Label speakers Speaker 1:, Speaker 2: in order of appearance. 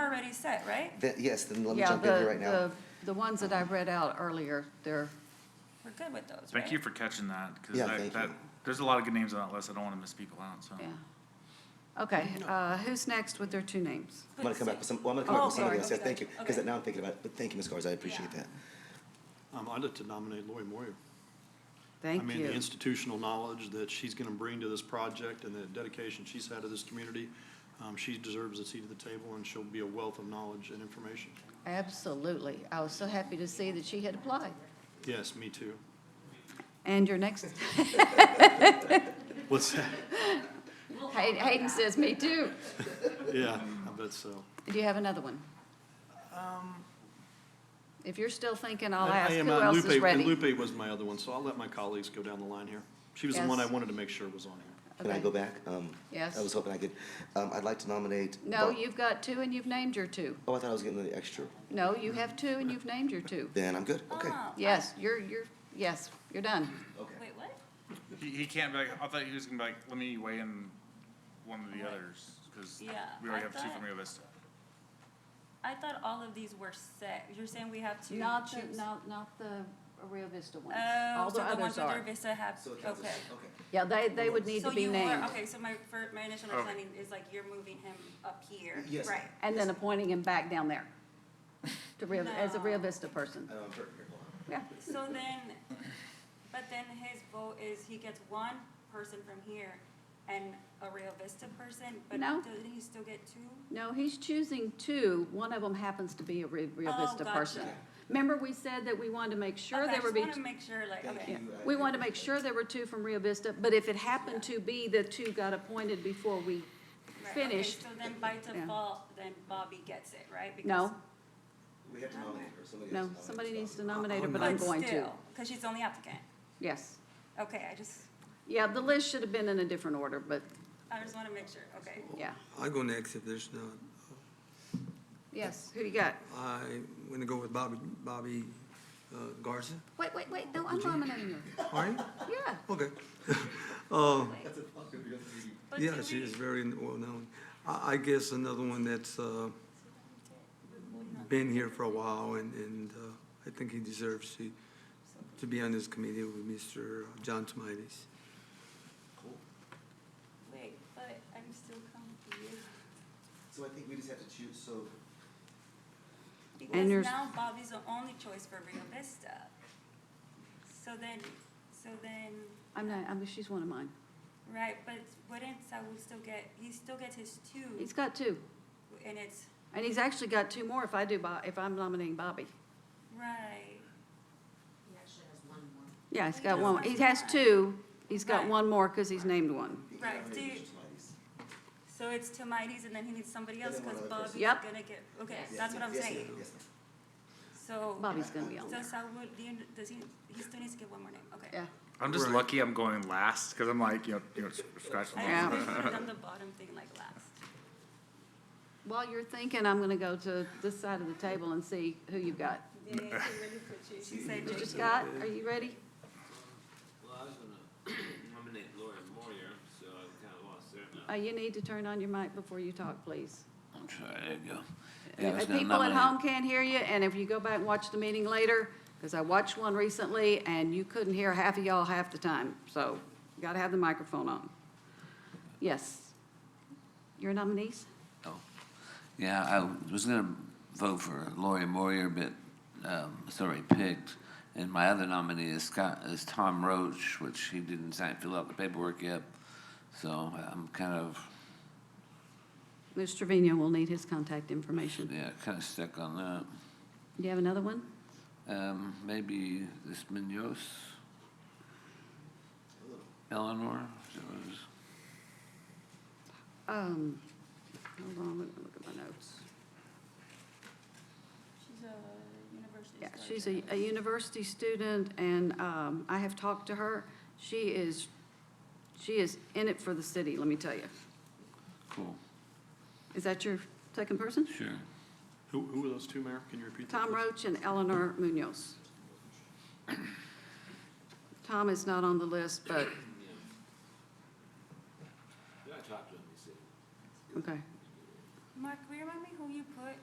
Speaker 1: already set, right?
Speaker 2: Then- Yes, then let me
Speaker 3: Yeah,
Speaker 2: jump in
Speaker 3: the-
Speaker 2: here right now.
Speaker 3: the- The ones that I read out earlier, they're,
Speaker 1: We're good with those, right?
Speaker 4: Thank you for catching that, because
Speaker 2: Yeah, thank
Speaker 4: that, that,
Speaker 2: you.
Speaker 4: there's a lot of good names on that list, I don't want to misspeak aloud, so.
Speaker 3: yeah. Okay, uh, who's next with their two names?
Speaker 2: I'm gonna come back with some, well, I'm gonna come back
Speaker 1: Oh,
Speaker 2: with somebody
Speaker 1: sorry.
Speaker 2: else, yes, thank you, because
Speaker 1: Okay.
Speaker 2: now I'm thinking about it, but thank you, Ms. Garza, I appreciate
Speaker 1: Yeah.
Speaker 2: that.
Speaker 5: Um, I'd like to nominate Lori Moyer.
Speaker 3: Thank
Speaker 5: I mean, the
Speaker 3: you.
Speaker 5: institutional knowledge that she's gonna bring to this project and the dedication she's had to this community, um, she deserves a seat at the table, and she'll be a wealth of knowledge and information.
Speaker 3: Absolutely. I was so happy to see that she had applied.
Speaker 5: Yes, me too.
Speaker 3: And your next,
Speaker 5: What's that?
Speaker 3: Hay- Hayden says, me too.
Speaker 5: Yeah, I bet so.
Speaker 3: Do you have another one? If you're still thinking, I'll
Speaker 5: Um, I- I
Speaker 3: ask
Speaker 5: am,
Speaker 3: who
Speaker 5: uh,
Speaker 3: else is
Speaker 5: Lupe- and
Speaker 3: ready.
Speaker 5: Lupe was my other one, so I'll let my colleagues go down the line here. She was the one I
Speaker 3: Yes.
Speaker 5: wanted to make sure was on here.
Speaker 2: Can I
Speaker 3: Okay.
Speaker 2: go back? Um,
Speaker 3: Yes.
Speaker 2: I was hoping I could, um, I'd like to nominate.
Speaker 3: No,
Speaker 2: Bar-
Speaker 3: you've got two and you've named your two.
Speaker 2: Oh, I thought I was getting the extra,
Speaker 3: No, you have two and you've named your two.
Speaker 2: then I'm good, okay.
Speaker 1: Oh,
Speaker 3: Yes, you're, you're, yes, you're done.
Speaker 1: Wait, what?
Speaker 4: He, he can't be like, I thought he was gonna be like, let me weigh in one of the others, because
Speaker 1: Yeah,
Speaker 4: we
Speaker 1: I
Speaker 4: already have two
Speaker 1: thought-
Speaker 4: from Rio Vista.
Speaker 1: I thought all of these were set. You're saying we have to choose?
Speaker 3: Not, the- not, not the Rio Vista ones.
Speaker 1: Oh,
Speaker 3: All
Speaker 1: so
Speaker 3: the
Speaker 1: the ones
Speaker 3: others
Speaker 1: with
Speaker 3: are.
Speaker 1: Vista have,
Speaker 2: So it counts as-
Speaker 1: okay.
Speaker 3: Yeah, they, they would need
Speaker 1: So
Speaker 3: to be
Speaker 1: you
Speaker 3: named.
Speaker 1: are, okay, so my, fir- my initial
Speaker 4: Okay.
Speaker 1: understanding is like you're moving him up here,
Speaker 2: Yes.
Speaker 1: right?
Speaker 3: And then appointing him back down there to Rio, as a Rio
Speaker 1: No.
Speaker 3: Vista person.
Speaker 2: I know, I'm hurt here, hold on.
Speaker 3: Yeah,
Speaker 1: So then, but then his vote is he gets one person from here and a Rio Vista person, but
Speaker 3: No.
Speaker 1: doesn't he still get two?
Speaker 3: no, he's choosing two. One of them happens to be a Rio Rio
Speaker 1: Oh,
Speaker 3: Vista
Speaker 1: gotcha.
Speaker 3: person. Remember, we said that we wanted to make sure
Speaker 1: Okay, I
Speaker 3: there would
Speaker 1: just wanna
Speaker 3: be,
Speaker 1: make sure, like,
Speaker 2: Thank
Speaker 1: okay.
Speaker 3: yeah,
Speaker 2: you. I
Speaker 3: we
Speaker 2: do
Speaker 3: wanted to make sure there were two from Rio Vista, but if it happened to be the two got appointed before we
Speaker 1: Right, okay,
Speaker 3: finished,
Speaker 1: So then by default, then Bobby gets it, right? Because-
Speaker 3: no,
Speaker 2: We have to nominate her, somebody has to
Speaker 3: no,
Speaker 2: nominate
Speaker 3: somebody
Speaker 2: us.
Speaker 3: needs to nominate her, but
Speaker 1: But
Speaker 3: I'm going to.
Speaker 1: still, Cause she's the only applicant.
Speaker 3: Yes.
Speaker 1: Okay, I just,
Speaker 3: Yeah, the list should have been in a different order, but,
Speaker 1: I just wanna make sure, okay.
Speaker 3: yeah.
Speaker 6: I go next if there's none.
Speaker 3: Yes, who do you got?
Speaker 6: I'm gonna go with Bobby, Bobby uh, Garza.
Speaker 3: Wait, wait, wait, no, I'm nominating you.
Speaker 6: Are you?
Speaker 3: Yeah.
Speaker 6: Okay. Uh,
Speaker 1: But do
Speaker 6: Yeah, she
Speaker 1: we-
Speaker 6: is very well-known. I, I guess another one that's uh, been here for a while and, and uh, I think he deserves to, to be on this committee with Mr. John Tomides.
Speaker 1: Wait, but I'm still confused.
Speaker 2: So I think we just have to choose, so,
Speaker 1: Because
Speaker 3: you're-
Speaker 1: now Bobby's the only choice for Rio Vista. So then, so then,
Speaker 3: I'm not, I mean, she's one of mine.
Speaker 1: right, but wouldn't Saul still get, he still gets his two,
Speaker 3: He's got two,
Speaker 1: and it's,
Speaker 3: and he's actually got two more if I do, Bo- if I'm nominating Bobby.
Speaker 1: right,
Speaker 3: Yeah, he's
Speaker 1: He
Speaker 3: got
Speaker 1: just
Speaker 3: one,
Speaker 1: wants
Speaker 3: he has
Speaker 1: one.
Speaker 3: two, he's got
Speaker 1: Right.
Speaker 3: one more because he's named one.
Speaker 2: you can
Speaker 1: Right,
Speaker 2: nominate
Speaker 1: do you-
Speaker 2: Mr. Tomides.
Speaker 1: so it's Tomites, and then he needs somebody
Speaker 2: And
Speaker 1: else,
Speaker 2: then one
Speaker 1: because
Speaker 2: other
Speaker 1: Bobby's
Speaker 2: person.
Speaker 3: Yep.
Speaker 1: gonna get, okay,
Speaker 2: Yes,
Speaker 1: that's what
Speaker 2: ma'am.
Speaker 1: I'm
Speaker 2: Yes,
Speaker 1: saying.
Speaker 2: ma'am. Yes, ma'am.
Speaker 1: So,
Speaker 3: Bobby's gonna be on there.
Speaker 1: so Saul, would- do you, does he, he still needs to get one more name, okay.
Speaker 3: Yeah,
Speaker 4: I'm just
Speaker 6: Right.
Speaker 4: lucky I'm going last, because I'm like, you know, you know, scratching.
Speaker 1: I
Speaker 3: Yeah.
Speaker 1: actually put down the bottom thing like last.
Speaker 3: while you're thinking, I'm gonna go to this side of the table and see who you've got.
Speaker 1: Yeah, she really put you, she said
Speaker 3: Mr.
Speaker 1: JK.
Speaker 3: Scott, are you ready?
Speaker 7: Well, I was gonna nominate Laura Moyer, so I kind of lost there now.
Speaker 3: Uh, you need to turn on your mic before you talk, please.
Speaker 7: I'm sorry, there you go. Yeah, I was
Speaker 3: If
Speaker 7: gonna
Speaker 3: Uh, People at
Speaker 7: nominate-
Speaker 3: home can't hear you, and if you go back and watch the meeting later, because I watched one recently, and you couldn't hear half of y'all half the time, so you gotta have the microphone on. Yes. Your nominees?
Speaker 7: Oh. Yeah, I was gonna vote for Laura Moyer, but, um, it's already picked. And my other nominee is Scott, is Tom Roach, which he didn't sign, fill out the paperwork yet. So I'm kind of,
Speaker 3: Mr. Trevino will need his contact information. Do
Speaker 7: yeah, kind of stuck on that.
Speaker 3: you have another one?
Speaker 7: Um, maybe this Munoz? Eleanor, is that what it was?
Speaker 3: Um, hold on, let me look at my notes.
Speaker 1: She's a university.
Speaker 3: Yeah, she's a, a university student, and, um, I have talked to her. She is, she is in it for the city, let me tell you.
Speaker 7: Cool,
Speaker 3: Is that your second person?
Speaker 7: sure.
Speaker 5: Who, who were those two, Mayor? Can you repeat that?
Speaker 3: Tom
Speaker 5: please?
Speaker 3: Roach and Eleanor Munoz. Tom is not on the list, but,
Speaker 7: I talked to him, he said.
Speaker 3: okay.
Speaker 1: Mark, will you remind me who you put